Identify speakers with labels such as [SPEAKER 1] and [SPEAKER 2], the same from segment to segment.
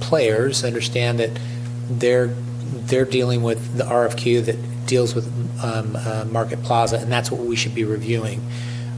[SPEAKER 1] players understand that they're, they're dealing with the RFQ that deals with um, uh, Market Plaza, and that's what we should be reviewing.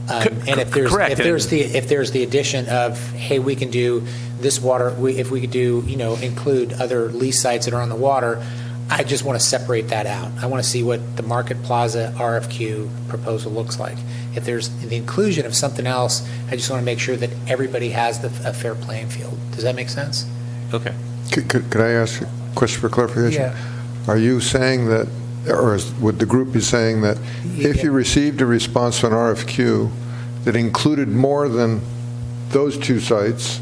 [SPEAKER 1] Um,
[SPEAKER 2] Co-
[SPEAKER 1] And if there's,
[SPEAKER 2] correct.
[SPEAKER 1] if there's the, if there's the addition of, hey, we can do this water, we- if we could do, you know, include other lease sites that are on the water, I just want to separate that out. I want to see what the Market Plaza RFQ proposal looks like. If there's the inclusion of something else, I just want to make sure that everybody has the, a fair playing field. Does that make sense?
[SPEAKER 2] Okay.
[SPEAKER 3] Could, could could I ask a question for clarification?
[SPEAKER 1] Yeah.
[SPEAKER 3] Are you saying that, or is, would the group be saying that if you received a response to an RFQ that included more than those two sites,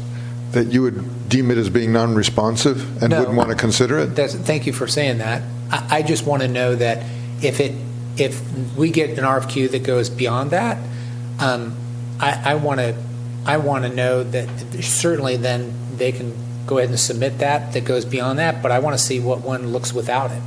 [SPEAKER 3] that you would deem it as being non-responsive and
[SPEAKER 1] No.
[SPEAKER 3] wouldn't want to consider it?
[SPEAKER 1] That's, thank you for saying that. I, I just want to know that if it, if we get an RFQ that goes beyond that, um, I, I want to, I want to know that certainly then they can go ahead and submit that, that goes beyond that, but I want to see what one looks without it.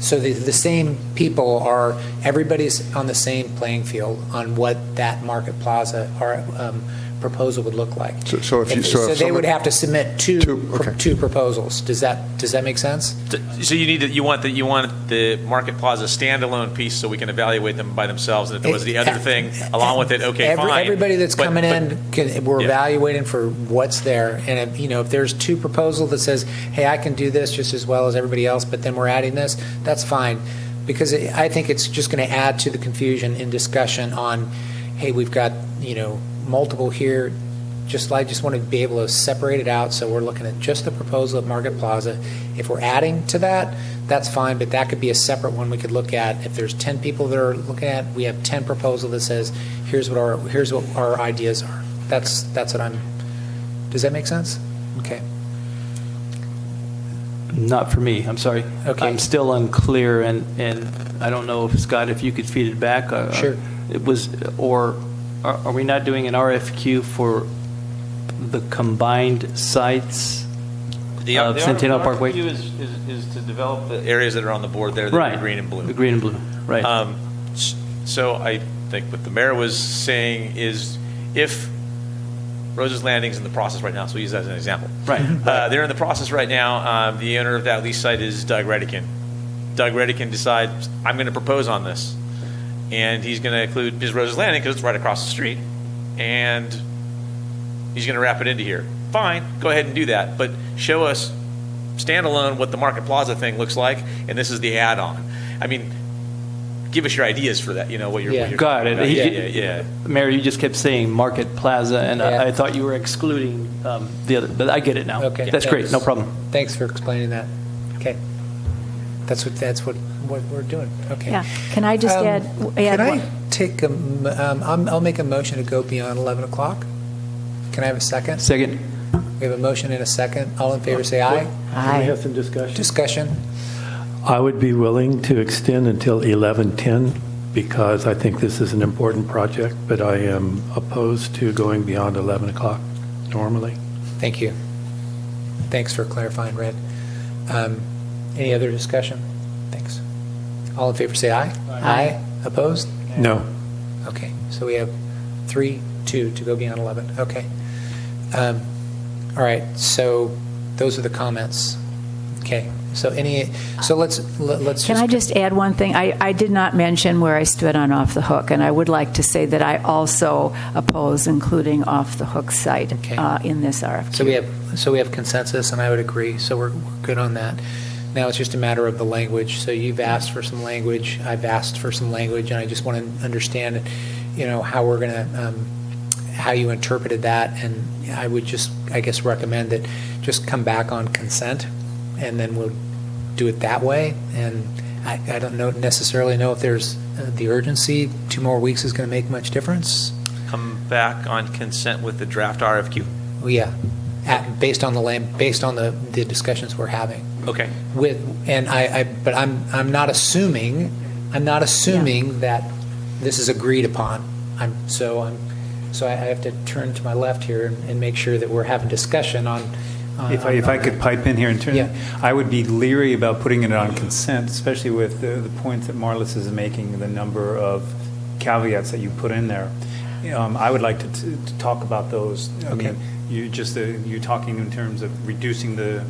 [SPEAKER 1] So the, the same people are, everybody's on the same playing field on what that Market Plaza or, um, proposal would look like.
[SPEAKER 3] So- so if you- so if
[SPEAKER 1] they would
[SPEAKER 3] someone-
[SPEAKER 1] have to submit two,
[SPEAKER 3] Two,
[SPEAKER 1] pro-
[SPEAKER 3] okay.
[SPEAKER 1] two proposals. Does that, does that make sense?
[SPEAKER 2] So you need, to- you want, the you want the Market Plaza standalone piece so we can evaluate them by themselves, and if there was the other thing along with it, okay,
[SPEAKER 1] Every-
[SPEAKER 2] fine.
[SPEAKER 1] Everybody that's
[SPEAKER 2] But-
[SPEAKER 1] coming
[SPEAKER 2] but-
[SPEAKER 1] in, can- we're
[SPEAKER 2] Yeah.
[SPEAKER 1] evaluating for what's there, and if, you know, if there's two proposal that says, hey, I can do this just as well as everybody else, but then we're adding this, that's fine, because it- I think it's just going to add to the confusion in discussion on, hey, we've got, you know, multiple here, just, I just want to be able to separate it out, so we're looking at just the proposal at Market Plaza. If we're adding to that, that's fine, but that could be a separate one we could look at. If there's 10 people that are looking at, we have 10 proposal that says, here's what our, here's what our ideas are. That's, that's what I'm, does that make sense? Okay.
[SPEAKER 4] Not for me, I'm sorry.
[SPEAKER 1] Okay.
[SPEAKER 4] I'm still unclear, and, and I don't know, if Scott, if you could feed it back. uh,
[SPEAKER 1] Sure.
[SPEAKER 4] It was, or are are we not doing an RFQ for the combined sites?
[SPEAKER 2] The-
[SPEAKER 4] Uh,
[SPEAKER 2] the
[SPEAKER 4] Centennial
[SPEAKER 2] RFQ
[SPEAKER 4] Parkway?
[SPEAKER 2] is, is- is to develop the areas that are on the board there, that are
[SPEAKER 4] Right.
[SPEAKER 2] green and blue.
[SPEAKER 4] The green and blue, right.
[SPEAKER 2] Um, s- So I think what the mayor was saying is if Rose's Landing's in the process right now, so we use that as an example.
[SPEAKER 4] Right.
[SPEAKER 2] Uh, They're in the process right now. Um, The owner of that lease site is Doug Redican. Doug Redican decides, I'm going to propose on this. And he's going to include his Rose's Landing because it's right across the street. And he's going to wrap it into here. Fine, go ahead and do that, but show us standalone what the Market Plaza thing looks like, and this is the add-on. I mean, give us your ideas for that, you know, what you're. what
[SPEAKER 1] Yeah.
[SPEAKER 2] you're
[SPEAKER 4] Got
[SPEAKER 2] talking
[SPEAKER 4] it.
[SPEAKER 2] about.
[SPEAKER 4] He-
[SPEAKER 2] Yeah, yeah, yeah.
[SPEAKER 4] Mayor, you just kept saying Market Plaza, and
[SPEAKER 1] Yeah.
[SPEAKER 4] I I thought you were excluding um, the other, but I get it now.
[SPEAKER 1] Okay.
[SPEAKER 4] That's great,
[SPEAKER 1] Thanks.
[SPEAKER 4] no problem.
[SPEAKER 1] Thanks for explaining that. Okay. That's what, that's what, what we're doing. Okay.
[SPEAKER 5] Yeah, can I just
[SPEAKER 1] Um,
[SPEAKER 5] add? add
[SPEAKER 1] Can I
[SPEAKER 5] one-
[SPEAKER 1] take, a m- um, I'm- I'll make a motion to go beyond 11 o'clock? Can I have a second?
[SPEAKER 4] Second,
[SPEAKER 1] We have a motion and a second. All in favor, say aye.
[SPEAKER 6] Can we
[SPEAKER 5] Aye.
[SPEAKER 6] have some discussion?
[SPEAKER 1] Discussion?
[SPEAKER 6] I would be willing to extend until 11:10 because I think this is an important project, but I am opposed to going beyond 11 o'clock normally.
[SPEAKER 1] Thank you. Thanks for clarifying, Red. Um, Any other discussion? Thanks. All in favor, say aye. Aye. Opposed?
[SPEAKER 6] No.
[SPEAKER 1] Okay, so we have three, two to go beyond 11. Okay. Um, All right, so those are the comments. Okay, so any, so let's, let- let's just.
[SPEAKER 5] Can I just add one thing? I, I did not mention where I stood on Off the Hook, and I would like to say that I also oppose including Off the Hook site
[SPEAKER 1] Okay.
[SPEAKER 5] uh, in this RFQ.
[SPEAKER 1] So we have, so we have consensus, and I would agree, so we're, we're good on that. Now it's just a matter of the language, so you've asked for some language, I've asked for some language, and I just want to understand, you know, how we're going to, how you interpreted that, and I would just, I guess, recommend that just come back on consent, and then we'll do it that way, and I, I don't know, necessarily know if there's uh, the urgency, two more weeks is going to make much difference,
[SPEAKER 2] Come back on consent with the draft RFQ.
[SPEAKER 1] Well, Oh, yeah, at, based on the land, based on the, the discussions we're having
[SPEAKER 2] Okay.
[SPEAKER 1] with, and I, I, but I'm, I'm not assuming, I'm not assuming that this is agreed upon. I'm, so I'm, so I I have to turn to my left here and, and make sure that we're having discussion on. on-
[SPEAKER 7] If I, if I could pipe in here and
[SPEAKER 1] Uh, Yeah.
[SPEAKER 7] turn, I would be leery about putting it on consent, especially with the, the points that Marlis is making, the number of caveats that you put in there. Um, I would like to, to to talk about those. I
[SPEAKER 1] Okay.
[SPEAKER 7] mean, you just, uh, you talking in terms of reducing the